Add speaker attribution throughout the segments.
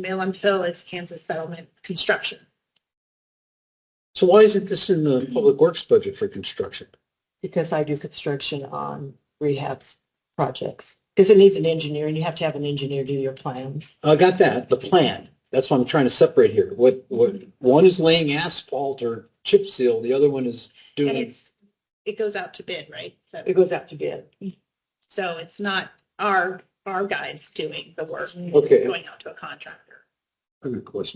Speaker 1: Milam Hill is Kansas Settlement Construction.
Speaker 2: So why isn't this in the public works budget for construction?
Speaker 3: because I do construction on rehabs projects. Because it needs an engineer and you have to have an engineer do your plans.
Speaker 2: I got that, the plan. That's what I'm trying to separate here. What, what, one is laying asphalt or chip seal, the other one is
Speaker 1: And
Speaker 2: doing.
Speaker 1: it's, it goes out to bid, right? So-
Speaker 3: It goes out to bid.
Speaker 1: So it's not our, our guys doing the work. it's
Speaker 2: Okay.
Speaker 1: Going out to a contractor.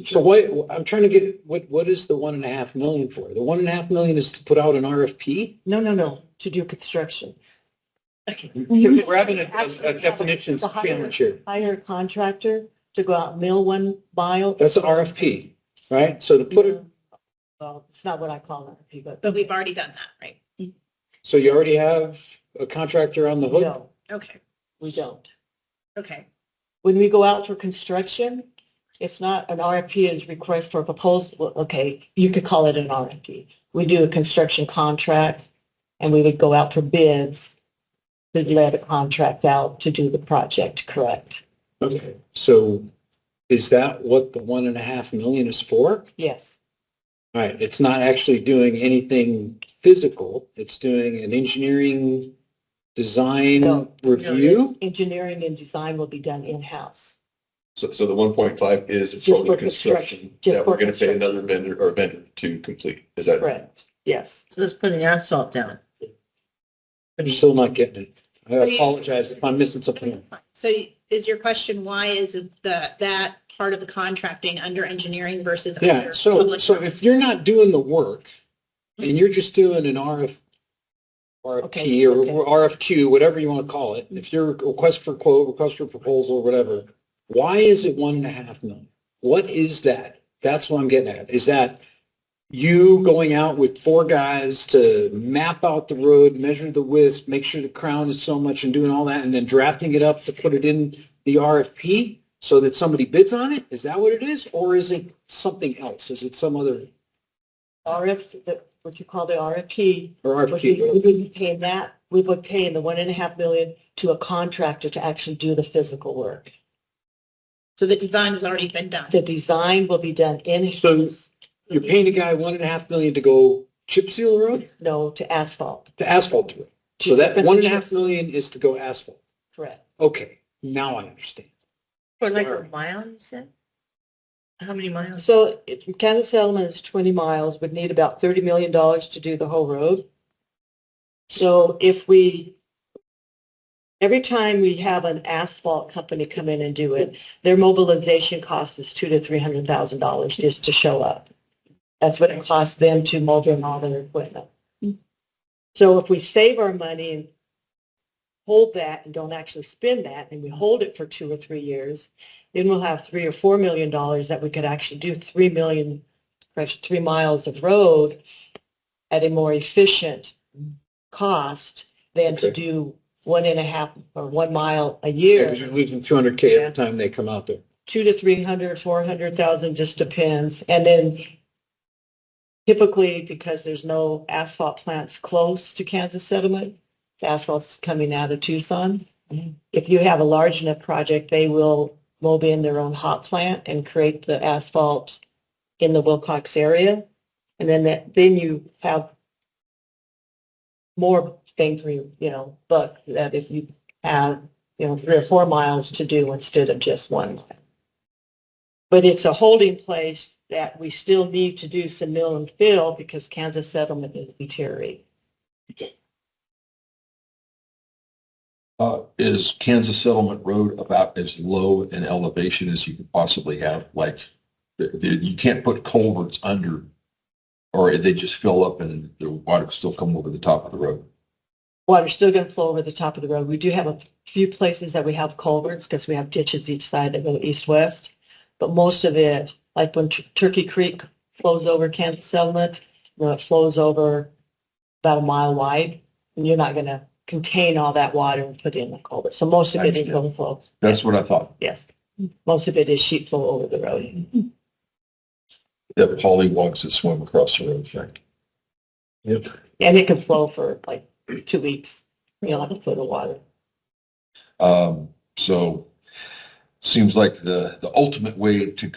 Speaker 2: So why, I'm trying to get, what, what is the one and a half million for? The one and a half million is to put out an RFP?
Speaker 3: No, no, no, to do construction. Mm-hmm.
Speaker 2: We're having a, a- a definitions
Speaker 3: The higher-
Speaker 2: challenge here.
Speaker 3: Hire a contractor to go out and mill one mile.
Speaker 2: That's an RFP, right? So to put it,
Speaker 3: Well, it's not what I call an RFP, but.
Speaker 1: But we've already done that, right?
Speaker 2: so you already have a contractor on the hook?
Speaker 3: No,
Speaker 1: Okay,
Speaker 3: we don't.
Speaker 1: okay.
Speaker 3: When we go out for construction, it's not an RFP is request for proposal. Well, Okay, you could call it an RFP. We do a construction contract and we would go out for bids to let a contract out to do the project, correct?
Speaker 2: Okay, so is that what the one and a half million is for?
Speaker 3: Yes.
Speaker 2: Right, it's not actually doing anything physical, it's doing an engineering design
Speaker 3: No.
Speaker 2: review?
Speaker 3: Engineering and design will be done in-house.
Speaker 4: So, so the one point five is
Speaker 3: Just
Speaker 4: solely
Speaker 3: for
Speaker 4: construction
Speaker 3: construction, just
Speaker 4: that we're
Speaker 3: for
Speaker 4: gonna pay
Speaker 3: construction.
Speaker 4: another vendor or vendor to complete. Is that?
Speaker 3: Correct. Yes.
Speaker 5: So it's putting asphalt down.
Speaker 2: I'm still not getting it. I
Speaker 1: What do you-
Speaker 2: apologize if I'm missing something.
Speaker 1: So is your question, why is the, that part of the contracting under engineering versus
Speaker 2: Yeah,
Speaker 1: under
Speaker 2: so,
Speaker 1: public?
Speaker 2: so if you're not doing the work and you're just doing an RF,
Speaker 3: Okay,
Speaker 2: RFP or
Speaker 3: okay.
Speaker 2: RFQ, whatever you want to call it, if you're request for quote, request for proposal, whatever, why is it one and a half million? What is that? That's what I'm getting at. Is that you going out with four guys to map out the road, measure the width, make sure the crown is so much and doing all that and then drafting it up to put it in the RFP? so that somebody bids on it? Is that what it is? Or is it something else? Is it some other,
Speaker 3: RF, the- what you call the RFP,
Speaker 2: or
Speaker 3: would be-
Speaker 2: RFQ?
Speaker 3: we
Speaker 2: whatever?
Speaker 3: would be paying that, we would pay the one and a half million to a contractor to actually do the physical work.
Speaker 1: So the design has already been done.
Speaker 3: The design will be done
Speaker 2: So-
Speaker 3: in-house,
Speaker 2: You're paying a guy one and a half million to go chip seal the road,
Speaker 3: no, to asphalt.
Speaker 2: to asphalt the road. So that one and a half million is to go asphalt.
Speaker 3: Correct.
Speaker 2: Okay, now I understand.
Speaker 5: For like
Speaker 2: Sure.
Speaker 5: a mile, you said? How many miles?
Speaker 3: So if Kansas Settlement is 20 miles, would need about $30 million to do the whole road. So if we, every time we have an asphalt company come in and do it, their mobilization cost is two to $300,000 just to show up. That's what it costs them to mobilize all their equipment. So if we save our money and hold that and don't actually spend that, and we hold it for two or three years, then we'll have three or four million dollars that we could actually do three million, perhaps three miles of road at a more efficient cost than to
Speaker 2: Okay.
Speaker 3: do one and a half or one mile a
Speaker 2: Yeah,
Speaker 3: year
Speaker 2: because you're losing two hundred K every time they come out there.
Speaker 3: two to three hundred, four hundred thousand, just depends. And then typically, because there's no asphalt plants close to Kansas settlement, the asphalt's coming out of Tucson. If you have a large enough project, they will mob in their own hot plant and create the asphalt in the Wilcox area. And then that, then you have more thing for you, you know, buck that if you have, you know, three or four miles to do instead of just one mile but it's a holding place that we still need to do some mill and fill because Kansas settlement is deteriorating.
Speaker 4: Uh, is Kansas Settlement Road about as low an elevation as you could possibly have? Like, the, the, you can't put culverts under, or they just fill up and the water still come over the top of the road.
Speaker 3: Water's still going to flow over the top of the road. We do have a few places that we have culverts because we have ditches each side that go east-west. But most of it, like when Tur- Turkey Creek flows over Kansas settlement, you know, it flows over about a mile wide. And you're not going to contain all that water and put in the culvert. So most of it is overflow,
Speaker 4: That's what I thought.
Speaker 3: yes. Most of it is sheet flow over the road.
Speaker 4: The polywogs that swim across the road, right?
Speaker 2: Yep.
Speaker 3: And it can flow for like two weeks, you know, like a foot of water.
Speaker 4: Um, so,
Speaker 2: seems like the, the ultimate way to